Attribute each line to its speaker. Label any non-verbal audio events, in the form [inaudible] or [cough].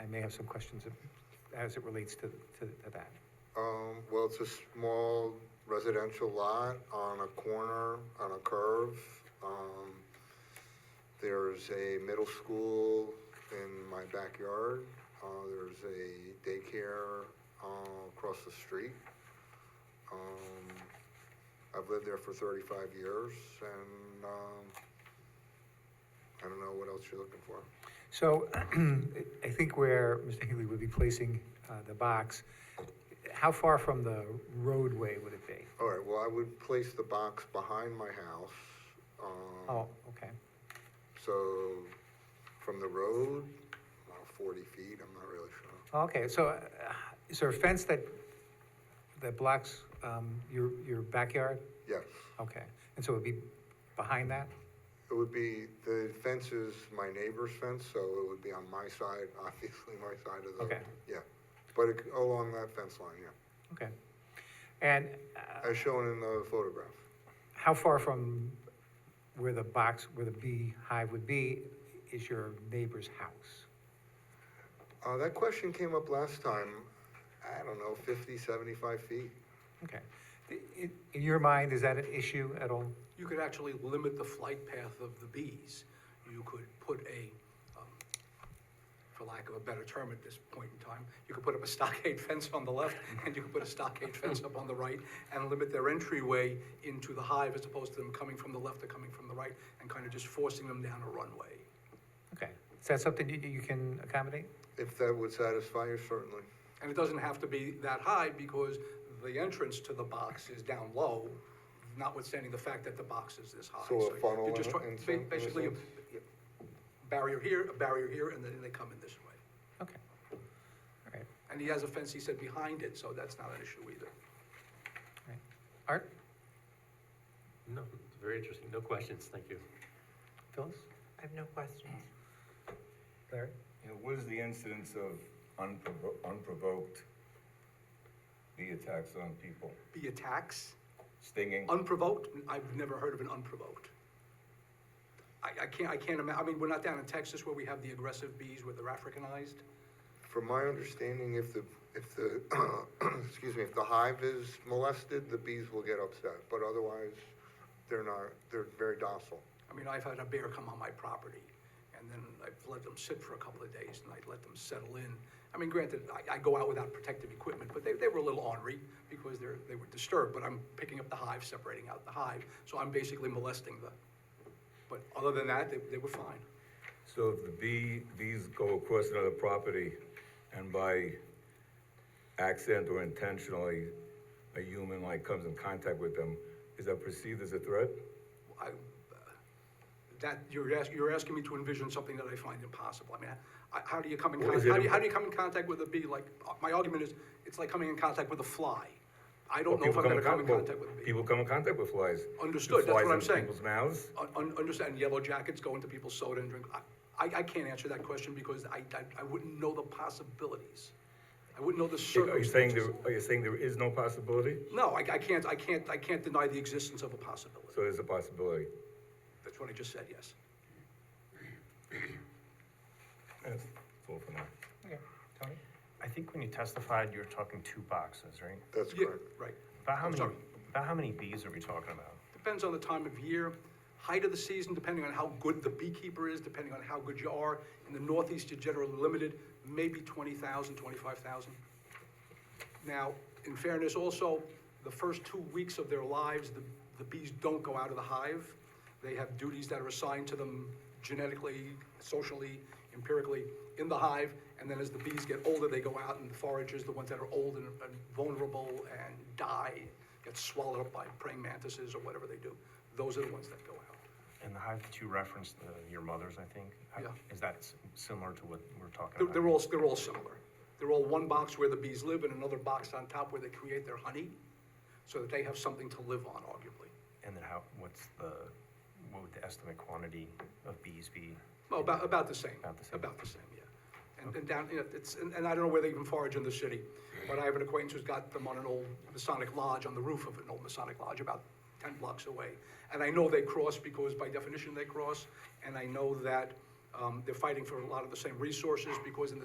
Speaker 1: I may have some questions as it relates to, to to that.
Speaker 2: Um, well, it's a small residential lot on a corner, on a curve. Um, there's a middle school in my backyard. Uh, there's a daycare, uh, across the street. Um, I've lived there for thirty-five years and, um, I don't know what else you're looking for.
Speaker 1: So [clears throat] I think where Mr. Healy would be placing uh, the box, how far from the roadway would it be?
Speaker 2: All right, well, I would place the box behind my house. um,
Speaker 1: Oh, okay.
Speaker 2: So from the road, about 40 feet, I'm not really sure.
Speaker 1: Okay, so uh, is there a fence that, that blocks um, your, your backyard?
Speaker 2: Yes,
Speaker 1: Okay, and so it would be behind that?
Speaker 2: it would be, the fence is my neighbor's fence, so it would be on my side, [laughs] obviously my side of the.
Speaker 1: Okay.
Speaker 2: Yeah, but it- along that fence line, yeah,
Speaker 1: Okay. And uh,
Speaker 2: as shown in the photograph.
Speaker 1: how far from where the box, where the beehive would be, is your neighbor's house?
Speaker 2: Uh, That question came up last time, I don't know, 50, 75 feet.
Speaker 1: Okay. I- In, in your mind, is that an issue at all?
Speaker 3: You could actually limit the flight path of the bees. You could put a, um, for lack of a better term at this point in time, you could put up a stockade [laughs] fence on the left, and you could put a stockade fence up on the right, and limit their entryway into the hive as opposed to them coming from the left or coming from the right, and kind of just forcing them down a runway.
Speaker 1: Okay, is that something you, you can accommodate?
Speaker 2: If that would satisfy you, certainly.
Speaker 3: And it doesn't have to be that high because the entrance to the box is down low, notwithstanding the fact that the box is this high.
Speaker 2: So a
Speaker 3: you're
Speaker 2: funnel
Speaker 3: just
Speaker 2: in-
Speaker 3: try-
Speaker 2: in some- in a
Speaker 3: Basically, a
Speaker 2: sense?
Speaker 3: barrier here, a barrier here, and then they come in this way.
Speaker 1: Okay. All right,
Speaker 3: And he has a fence, he said, behind it, so that's not an issue either.
Speaker 1: all right. Art,
Speaker 4: No, it's very interesting. No questions. Thank you.
Speaker 1: Phyllis,
Speaker 5: I have no questions.
Speaker 1: Larry?
Speaker 6: You know, what is the incidence of unprovo- unprovoked bee attacks on people?
Speaker 3: Bee attacks,
Speaker 6: Stinging?
Speaker 3: unprovoked, I've never heard of an unprovoked. I, I can't, I can't imagine, I mean, we're not down in Texas where we have the aggressive bees where they're Africanized.
Speaker 2: From my understanding, if the, if the, [clears throat] excuse me, if the hive is molested, the bees will get upset, but otherwise, they're not, they're very docile.
Speaker 3: I mean, I've had a bear come on my property, and then I've let them sit for a couple of days, and I let them settle in. I mean, granted, I, I go out without protective equipment, but they, they were a little ornery because they're, they were disturbed, but I'm picking up the hive, separating out the hive, so I'm basically molesting the, but other than that, they, they were fine.
Speaker 6: So if the bee, bees go across another property and by accident or intentionally, a human like comes in contact with them, is that perceived as a threat?
Speaker 3: I, that, you're asking, you're asking me to envision something that I find impossible. I mean, I, how do you come in,
Speaker 6: Well,
Speaker 3: con-
Speaker 6: is it
Speaker 3: how do you,
Speaker 6: im-
Speaker 3: how do you come in contact with a bee? Like, uh, my argument is, it's like coming in contact with a fly. I
Speaker 6: Well,
Speaker 3: don't know if
Speaker 6: people
Speaker 3: I'm gonna
Speaker 6: con-
Speaker 3: come in
Speaker 6: well,
Speaker 3: contact with a bee.
Speaker 6: People come in contact with flies. Do
Speaker 3: Understood, that's what I'm saying.
Speaker 6: Flies in people's mouths?
Speaker 3: Un- un- Understand, yellow jackets go into people's soda and drink. I, I- I can't answer that question because I, I, I wouldn't know the possibilities. I wouldn't know the
Speaker 6: Are you saying
Speaker 3: circumstances.
Speaker 6: there, are you saying there is no possibility?
Speaker 3: No, I, I can't, I can't, I can't deny the existence of a possibility.
Speaker 6: So there's a possibility.
Speaker 3: That's what I just said, yes.
Speaker 6: That's all for now.
Speaker 1: Okay, Tony?
Speaker 7: I think when you testified, you were talking two boxes, right?
Speaker 2: That's
Speaker 3: Yeah,
Speaker 2: correct.
Speaker 3: right.
Speaker 7: About how
Speaker 3: I'm
Speaker 7: many,
Speaker 3: sorry.
Speaker 7: about how many bees are we talking about?
Speaker 3: Depends on the time of year, height of the season, depending on how good the beekeeper is, depending on how good you are. In the Northeast, you're generally limited, maybe 20,000, 25,000. Now, in fairness also, the first two weeks of their lives, the, the bees don't go out of the hive. They have duties that are assigned to them genetically, socially, empirically in the hive. And then as the bees get older, they go out and the foragers, the ones that are old and, and vulnerable and die, get swallowed up by praying mantises or whatever they do. Those are the ones that go out.
Speaker 7: And the hive that you referenced, uh, your mother's, I think? How-
Speaker 3: Yeah.
Speaker 7: Is that s- similar to what we're talking
Speaker 3: They're,
Speaker 7: about?
Speaker 3: they're all, they're all similar. They're all one box where the bees live and another box on top where they create their honey so that they have something to live on, arguably.
Speaker 7: And then how, what's the, what would the estimate quantity of bees be?
Speaker 3: Well, about, about the same.
Speaker 7: About the same.
Speaker 3: yeah. And, and down, you know, it's, and, and I don't know where they even forage in the city, but I have an acquaintance who's got them on an old Masonic lodge, on the roof of an old Masonic lodge, about ten blocks away. And I know they cross because by definition they cross, and I know that, um, they're fighting for a lot of the same resources because in the